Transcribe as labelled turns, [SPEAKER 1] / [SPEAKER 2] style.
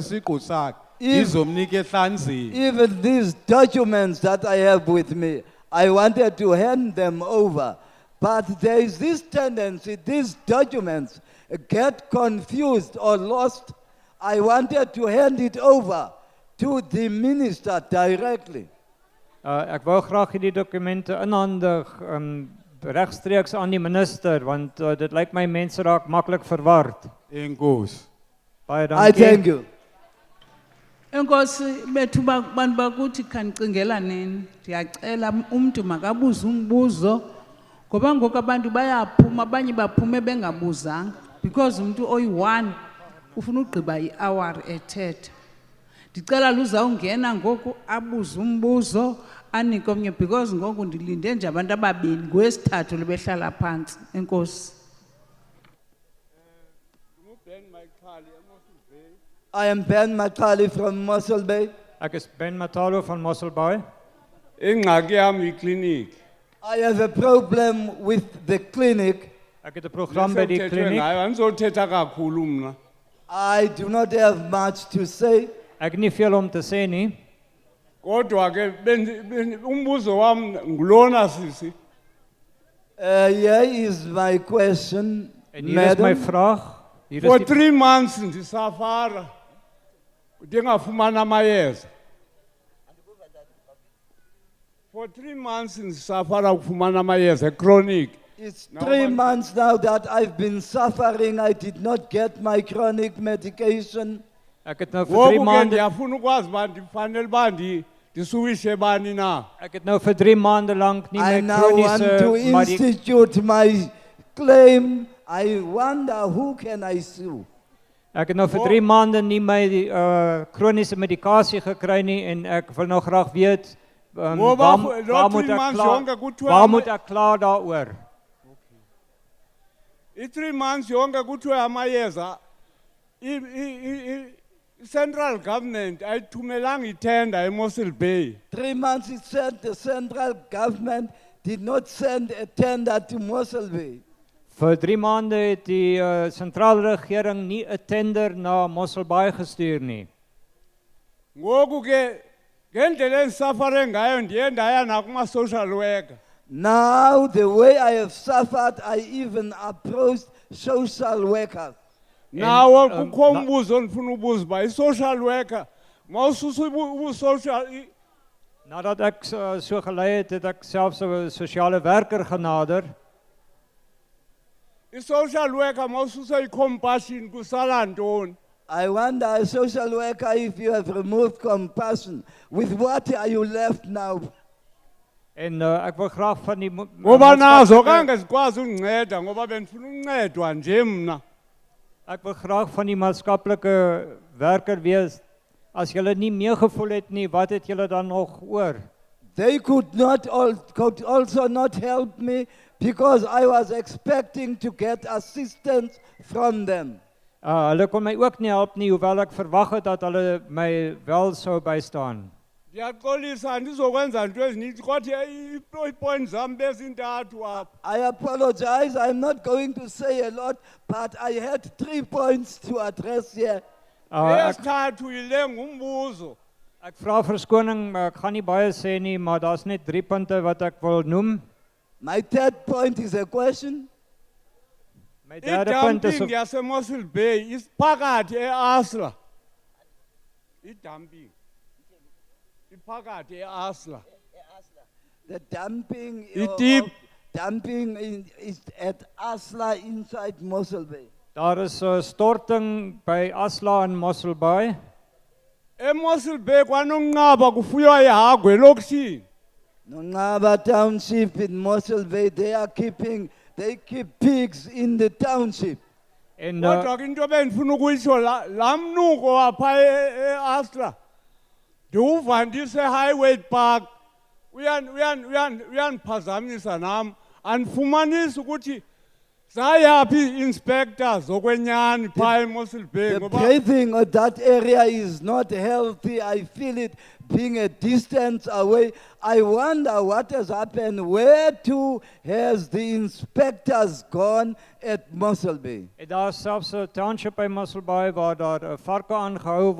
[SPEAKER 1] isiqu sakhe
[SPEAKER 2] If-
[SPEAKER 1] izomnika ehlanzini
[SPEAKER 2] Even these documents that I have with me, I wanted to hand them over. But there is this tendency, these documents get confused or lost. I wanted to hand it over to the minister directly.
[SPEAKER 3] Uh, ek wou graag hierdie dokumente inhandig um regstreeks aan die minister want uh, dit lyk my mense raak maklik verward.
[SPEAKER 1] enkosi
[SPEAKER 2] I
[SPEAKER 3] Baie dankie.
[SPEAKER 2] thank you.
[SPEAKER 4] Enkosi bethu ba- bantu bakuthi khanicingela nini. Ndiyacela umntu makabuze umbuzo ngoba ngoku abantu bayaphuma abanye baphume bengabuzanga because umuntu oyi-one ufuna ugqiba i-hour ethetha. Ndicela luzawungena ngoku abuze umbuzo anike omnye because ngoku ndilinde nje abantu ababini ngowesithathu libehlala phantsi. Enkosi.
[SPEAKER 2] I am Ben Makali from Mossel Bay.
[SPEAKER 3] Ek is Ben Matalo van Mosselbaai.
[SPEAKER 1] ingxaki yami ikliniki
[SPEAKER 2] I have a problem with the clinic.
[SPEAKER 3] Ek het 'n program by die
[SPEAKER 1] Sekuthethwe
[SPEAKER 3] kliniek.
[SPEAKER 1] ngayo, andizothetha kakhulu mna
[SPEAKER 2] I do not have much to say.
[SPEAKER 3] Ek het nie veel om te sê nie.
[SPEAKER 1] kodwa ke bendi- bendi- umbuzo wam ngulona sisi
[SPEAKER 2] Uh, here is my question,
[SPEAKER 3] En hier is my
[SPEAKER 2] madam.
[SPEAKER 3] vraag. Hier
[SPEAKER 1] for
[SPEAKER 3] is die,
[SPEAKER 1] 3 months ndisafara ndingafumani amayeza for 3 months ndisafara ukufumana amayeza echronic
[SPEAKER 2] It's
[SPEAKER 1] Now,
[SPEAKER 2] three
[SPEAKER 1] but-
[SPEAKER 2] months now that I've been suffering. I did not get my chronic medication.
[SPEAKER 3] ek het nou vir 3
[SPEAKER 1] ngoku ke
[SPEAKER 3] maande
[SPEAKER 1] ndiyafuna ukwazi uba ndifanele uba ndi- ndisuwishe bani na
[SPEAKER 3] ek het nou vir 3 maande lank nie
[SPEAKER 2] I
[SPEAKER 3] my
[SPEAKER 2] now want to
[SPEAKER 3] kroniese maar die
[SPEAKER 2] institute my claim. I wonder who can I sue?
[SPEAKER 3] Ek het nou vir 3 maande nie my die, uh kroniese medikasie gekry nie en ek wil nou graag weet um,
[SPEAKER 1] Wo-
[SPEAKER 3] waar,
[SPEAKER 1] waar-
[SPEAKER 3] waar
[SPEAKER 1] daar
[SPEAKER 3] moet
[SPEAKER 1] drie
[SPEAKER 3] ek
[SPEAKER 1] maande
[SPEAKER 3] klaar
[SPEAKER 1] jonge, kuthiwa-
[SPEAKER 3] waar moet ek klaar daaroor?
[SPEAKER 1] i-three months yonke kuthiwe amayeza i- i- i- i- i-central government ayithumelanga itenda emossel bay
[SPEAKER 2] Three months it said the central government did not send a tender to Mosselby.
[SPEAKER 3] Vir 3 maande het die uh, sentrale regering nie 'n tender na Mosselbaai gestuur nie.
[SPEAKER 1] ngoku ke ngendlela endisafare ngayo ndiye ndaya nakuma-social worker
[SPEAKER 2] Now, the way I have suffered, I even approached social workers.
[SPEAKER 1] nawo
[SPEAKER 3] um,
[SPEAKER 1] kukho
[SPEAKER 3] na-
[SPEAKER 1] umbuzo ndifuna ubuza uba i-social worker mawususa ubusocial i-
[SPEAKER 3] Nadat ek so, so gelei het, het ek selfs 'n sosiale werker genader.
[SPEAKER 1] i-social worker mawususa i-compassion kusala ntoni
[SPEAKER 2] I wonder, a social worker, if you have removed compassion, with what are you left now?
[SPEAKER 3] En uh, ek wil graag van die mo-
[SPEAKER 1] ngoba nazo
[SPEAKER 3] maatskaplike-
[SPEAKER 1] kange zikwazi undinceda ngoba bendifuna uncedwa nje mna
[SPEAKER 3] Ek wil graag van die maatskaplike werker wees. As julle nie meegevoel het nie, wat het julle dan nog oor?
[SPEAKER 2] They could not all, could also not help me because I was expecting to get assistance from them.
[SPEAKER 3] Uh hulle kon my ook nie help nie hoewel ek verwag het dat hulle my wel sou bystaan.
[SPEAKER 1] ndiyaxolisa andizokwenza nto ezininzi kodwa i- i- iipoint zam bezintathu apha
[SPEAKER 2] I apologize, I'm not going to say a lot, but I had three points to address here.
[SPEAKER 3] Uh ek
[SPEAKER 1] eyesithathu yile ngumbuzo
[SPEAKER 3] ek vra verskoning, maar ek gaan nie baie sê nie, maar daar's net 3 punte wat ek wil noem.
[SPEAKER 2] My third point is a question.
[SPEAKER 3] My derde punt is
[SPEAKER 1] idumping yasemossel bay iphakathi easla idumping iphakathi easla
[SPEAKER 2] The dumping,
[SPEAKER 1] It
[SPEAKER 2] of-
[SPEAKER 1] did.
[SPEAKER 2] dumping in, is at Asla inside Mossel Bay.
[SPEAKER 3] daar is 'n storting by Asla in Mosselbaai.
[SPEAKER 1] emossel bay kwanonqaba kufuywa ihagwe elokishini
[SPEAKER 2] Nongaba Township in Mossel Bay, they are keeping, they keep pigs in the township.
[SPEAKER 3] En uh,
[SPEAKER 1] kodwa ke into ebendifuna ukuyitsho la- laa mnuko wapha e, easla ndiwuva ndise-highway park Uyan- uyan- uyan- uyandiphazamisa nam andifumanisi ukuthi zayaphi ii-inspector zokwenyani phaa emossel bay
[SPEAKER 2] The
[SPEAKER 1] ngoba
[SPEAKER 2] breathing of that area is not healthy. I feel it being a distance away. I wonder what has happened. Where to has the inspectors gone at Mossel Bay?
[SPEAKER 3] en daar's selfs 'n township by Mosselbaai waar daar 'n uh, varke aangehou